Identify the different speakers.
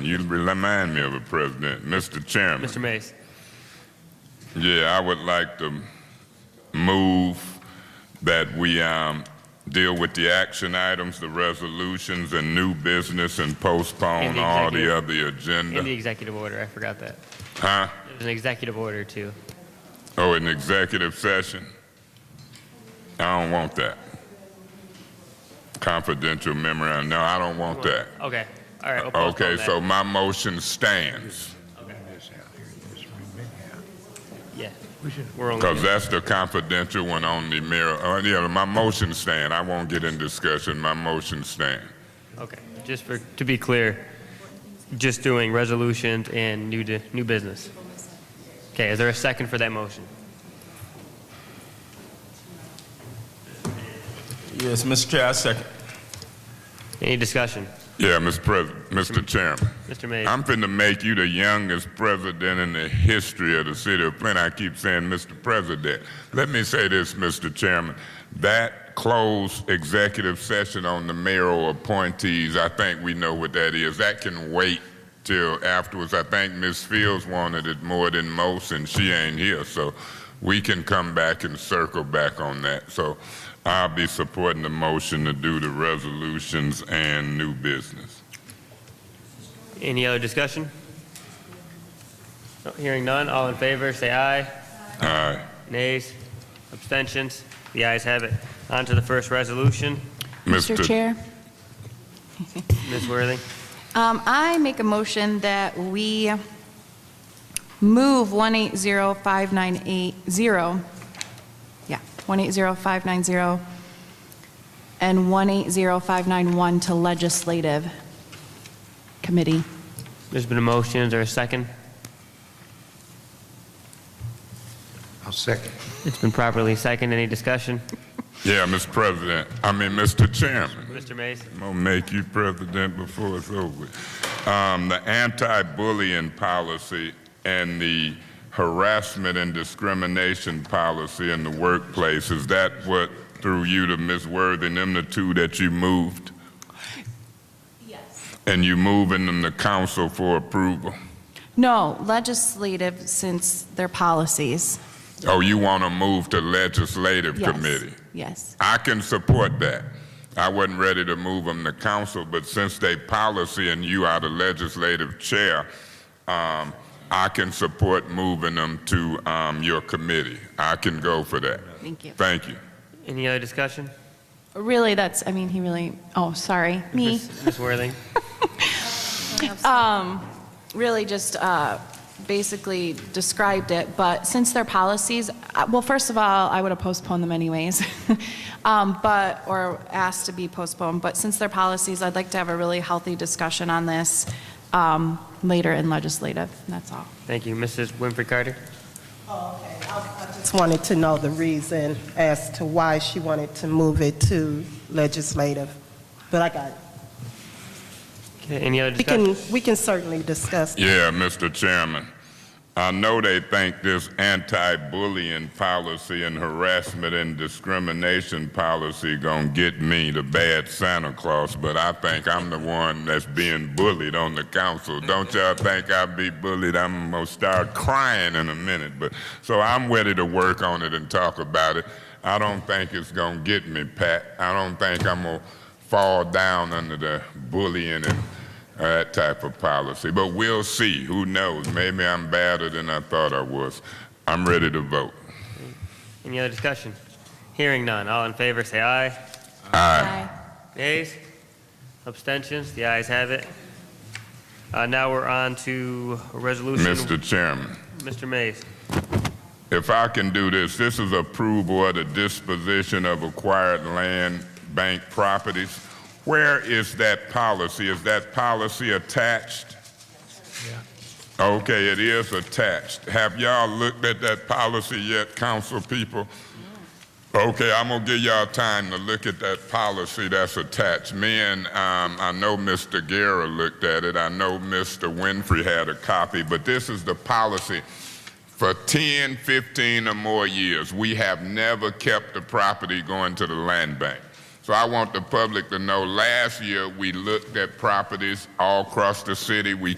Speaker 1: You remind me of a president. Mr. Chairman.
Speaker 2: Mr. Mays.
Speaker 1: Yeah, I would like to move that we um, deal with the action items, the resolutions, and new business and postpone
Speaker 2: And the
Speaker 1: all the
Speaker 2: executive-
Speaker 1: other agenda.
Speaker 2: In the executive order, I forgot that.
Speaker 1: huh?
Speaker 2: There's an executive order too.
Speaker 1: Oh, an executive session? I don't want that. Confidential memorandum. No, I don't want that.
Speaker 2: Okay, all right. we'll postpone
Speaker 1: Okay,
Speaker 2: that.
Speaker 1: so my motion stands
Speaker 2: Yeah. We're only.
Speaker 1: because that's the confidential one on the mirror. Uh, yeah, my motion stand. I won't get in discussion. My motion stand.
Speaker 2: Okay, just for, to be clear, just doing resolutions and new, di- new business. Okay, is there a second for that motion?
Speaker 3: Yes, Mr. Chair, I second.
Speaker 2: Any discussion?
Speaker 1: Yeah, Mr. President, Mr. Chairman.
Speaker 2: Mr. Mays?
Speaker 1: I'm finna make you the youngest president in the history of the city of Flint. I keep saying, Mr. President. Let me say this, Mr. Chairman. That closed executive session on the mayoral appointees, I think we know what that is. That can wait till afterwards. I think Ms. Fields wanted it more than most, and she ain't here. So we can come back and circle back on that. So I'll be supporting the motion to do the resolutions and new business.
Speaker 2: Any other discussion? No, Hearing none, all in favor, say aye.
Speaker 1: All right.
Speaker 2: Nays? Abstentions? The ayes have it. On to the first resolution.
Speaker 4: Mr. Chair,
Speaker 2: Ms. Worthing?
Speaker 4: um, I make a motion that we move 1805980, yeah, 180590 and 180591 to Legislative Committee.
Speaker 2: There's been a motion, is there a second?
Speaker 5: I'll second.
Speaker 2: It's been properly second, any discussion?
Speaker 1: Yeah, Mr. President. I mean, Mr. Chairman.
Speaker 2: Mr. Mays?
Speaker 1: I'm gonna make you president before it's over. Um, the anti-bullying policy and the harassment and discrimination policy in the workplace, is that what through you to Ms. Worthing, them the two that you moved? Yes. And you moving them to council for approval?
Speaker 4: No, legislative since they're policies.
Speaker 1: Oh, you wanna move to legislative
Speaker 4: Yes.
Speaker 1: committee?
Speaker 4: Yes.
Speaker 1: I can support that. I wasn't ready to move them to council, but since they policy and you are the legislative chair, um, I can support moving them to, um, your committee. I can go for that.
Speaker 4: Thank you.
Speaker 1: Thank you.
Speaker 2: Any other discussion?
Speaker 4: Really, that's, I mean, he really, oh, sorry, me.
Speaker 2: Ms. Ms. Worthing?
Speaker 4: really just uh, basically described it, but since they're policies, uh, well, first of all, I would have postponed them anyways, Um, but, or asked to be postponed, but since they're policies, I'd like to have a really healthy discussion on this um, later in legislative, that's all.
Speaker 2: Thank you. Mrs. Winfrey Carter?
Speaker 6: Oh, okay. I I just wanted to know the reason as to why she wanted to move it to legislative, but I got it.
Speaker 2: Okay, any other
Speaker 6: We
Speaker 2: discussion?
Speaker 6: can, we can certainly discuss.
Speaker 1: Yeah, Mr. Chairman. I know they think this anti-bullying policy and harassment and discrimination policy gonna get me the bad Santa Claus, but I think I'm the one that's being bullied on the council. Don't y'all think I be bullied? I'm gonna start crying in a minute, but, so I'm ready to work on it and talk about it. I don't think it's gonna get me, Pat. I don't think I'm gonna fall down under the bullying and uh, that type of policy. But we'll see. Who knows? Maybe I'm badder than I thought I was. I'm ready to vote.
Speaker 2: Any other discussion? Hearing none, all in favor, say aye.
Speaker 4: Aye.
Speaker 2: Nays? Abstentions? The ayes have it. Uh, Now we're on to a resolution.
Speaker 1: Mr. Chairman,
Speaker 2: Mr. Mays.
Speaker 1: if I can do this, this is approval of the disposition of acquired land bank properties. Where is that policy? Is that policy attached? Okay, it is attached. Have y'all looked at that policy yet, council people? Okay, I'm gonna give y'all time to look at that policy that's attached. Me and, um, I know Mr. Guerra looked at it, I know Mr. Winfrey had a copy, but this is the policy. For 10, 15 or more years, we have never kept the property going to the land bank. So I want the public to know, last year, we looked at properties all across the city, we